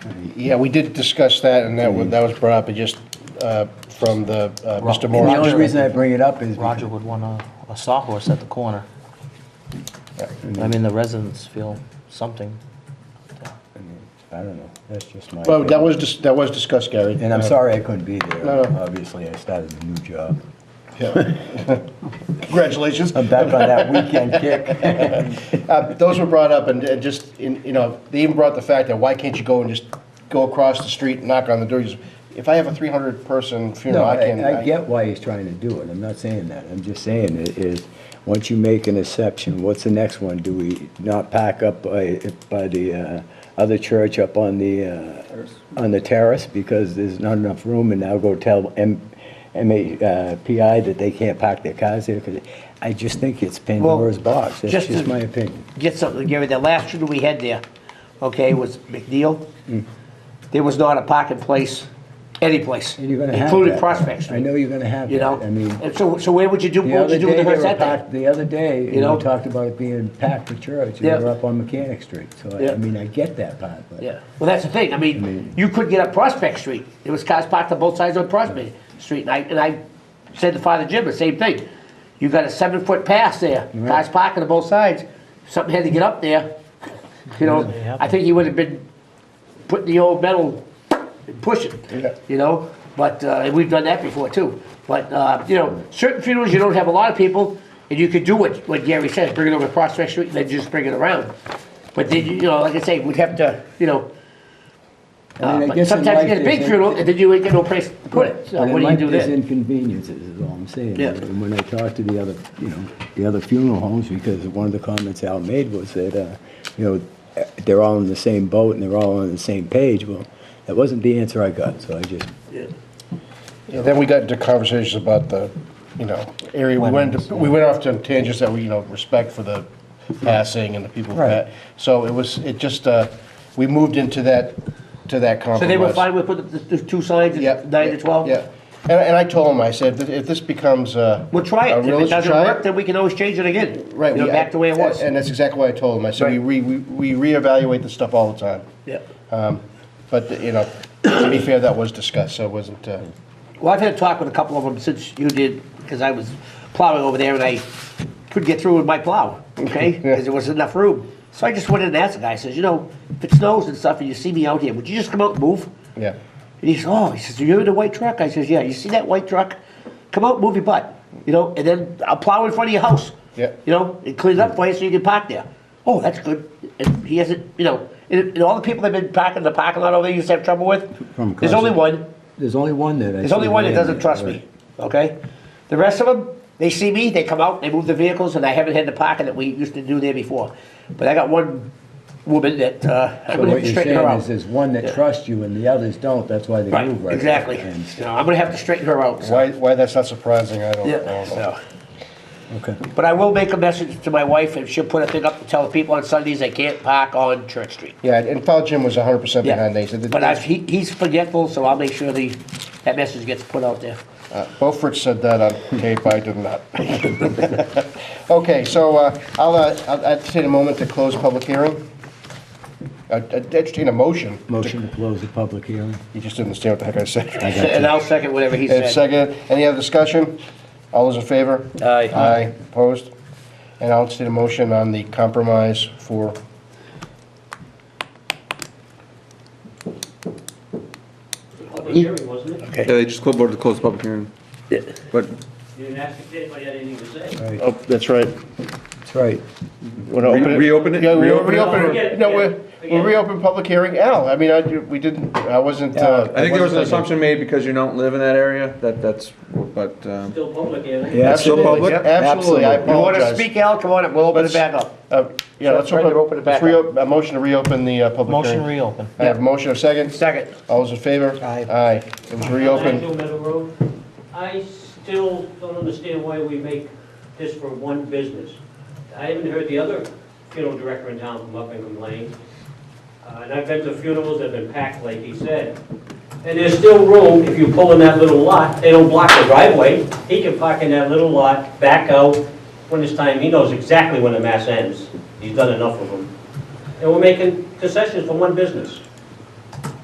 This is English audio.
Yeah, we did discuss that, and that was, that was brought up, it just, uh, from the, uh, Mr. Rob- Morris. Roger- The only reason I bring it up is Roger because would want a, a sawhorse at the corner. I mean, the residents feel something. I don't know, that's just my. Well, that was, dis- that was discussed, Gary. And I'm Uh, sorry I couldn't be No, there. no. Obviously, I started a new job. yeah. Congratulations. I'm back on that weekend kick. Uh, Those were brought up, and uh, just, in- you know, they even brought the fact that why can't you go and just go across the street and knock on the door? You just- If I have a 300-person No, funeral, I can... I, I get why he's trying to do it, I'm not saying that, I'm just saying it is, once you make an exception, what's the next one? Do we not pack up by, by the, uh, other church up on the, uh, on the terrace because there's not enough room and now go tell M, MA, uh, PI that they can't park their cars there? 'Cause I just think it's Pandora's box, that's just just to- my opinion. Get something, Gary, the last shooter we had there, okay, was McNeil. Hmm. There was not a parking place, any place, And you're gonna have including that. Prospect Street. I know you're gonna have You know, that. I mean- and so, so where would you do, The what would other you do with day, the they hearse were that day? packed, the other day, and know? you talked about it being packed for church, and they Yeah. were up on Mechanic Street, so I- Yeah. I mean, I get that part, but. Yeah, well, that's the thing, I mean, you could get up Prospect Street, there was cars parked on both sides on Prospect Street, and I, and I said to Father Jim the same thing. You got a seven-foot pass there, cars parking on both sides, something had to get up there, you know, I think he would have been putting the old metal, and push Yeah. it, you know, but, uh, and we've done that before too, but, uh, you know, certain funerals, you don't have a lot of people, and you could do what, what Gary says, bring it over to Prospect Street, and then just bring it around. But then, you know, like I say, we'd have to, you know, I mean, I uh, but guess in sometimes life you get a big there's- funeral, and then you ain't got no place to put it, so But in what do you life, do there's then? inconveniences, is all I'm saying. Yeah. And when I talked to the other, you know, the other funeral homes, because one of the comments Al made was that, uh, you know, they're all in the same boat and they're all on the same page, well, that wasn't the answer I got, so I just, Yeah, Then we got into conversations about the, you know, area, we went, to- we went off to tangents that we, you know, respect for the passing and the people Right. that, so it was, it just, uh, we moved into that, to that compromise. So they were fine with putting the, the two signs, Yeah. at nine to twelve? Yeah, and, and I told him, I said, "If- if this becomes uh We'll try a it, if real- it doesn't try work, then we can always change it again, you Right. know, we- back to the way it was, And that's exactly what I told him, I said, we re, we we reevaluate this stuff all the time. yeah. But, you know, to be fair, that was discussed, so it wasn't, uh, Well, I've had a talk with a couple of them since you did, because I was plowing over there and I couldn't get through with my plow, okay? Because there wasn't enough room. So I just went in and asked the guy, I says, you know, if it snows and stuff and you see me out here, would you just come out and move? yeah. And he says, oh, he says, you're in the white truck? I says, yeah, you see that white truck? Come out, move your butt, you know, and then I'll plow in front of your house. Yeah. You know, and clean it up for you so you can park there. Oh, that's good. And he hasn't, you know, and, and all the people that have been parking in the parking lot over there you used to have trouble with, From there's only Crescent. one. there's only one that I. There's only see one that ran doesn't there, trust right. me, okay? The rest of them, they see me, they come out, they move the vehicles, and I haven't had the parking that we used to do there before. But I got one woman that, uh, I'm So gonna what have to you're straighten her saying out. is, there's one that trusts you and the others don't, that's why they Right, move right. exactly. And- You know, I'm gonna have to straighten her out, so, Why, why that's not surprising, I don't, I yeah, don't know. so. Okay. But I will make a message to my wife, and she'll put a thing up to tell people on Sundays they can't park on Church Street. Yeah, and Paul Jim was hundred percent Yeah, behind that. He said that- But I, he, he's forgetful, so I'll make sure the, that message gets put out there. uh, Beaufort said that on tape, I did not. Okay, so, uh, I'll, uh, I'll entertain a moment to close public hearing. I entertain a motion. to- Motion to close the public hearing. You just didn't understand what the heck I said. And I'll second whatever he And said. second, any other discussion? All those in favor? Aye. Aye, opposed? And I'll entertain a motion on the compromise for, Public hearing, wasn't it? Yeah, they just called board to close the public hearing. But You didn't ask if anybody had anything to say. oh, that's right. That's right. We're gonna open reopen it? Yeah, we Reopen it? reopen it. Again, No, again, we're, we'll again. reopen public hearing. Al, I mean, I, we didn't, I wasn't, uh. I think there was wasn't an thinking. assumption made because you don't live in that area, that, that's, but, um, Still public, yeah. Yeah, it's still Absolutely, public? yep, Absolutely, I You wanna apologize. speak, Al, come on up, we'll open it Let's- back up. Uh, Yeah, So let's try to open, open it let's back up. reopen, a motion to reopen the uh, public Motion hearing. reopen. I have a motion of second. Second. All those in favor? Aye. Aye. It was reopened. Nine Mill Meadow Road. I still don't understand why we make this for one business. I haven't heard the other funeral director in town come up and complain. Uh, And I've been to funerals that have been packed, like he said. And there's still room, if you pull in that little lot, they don't block the driveway. He can park in that little lot, back out when it's time. He knows exactly when the mass ends. He's done enough of them. And we're making concessions for one business.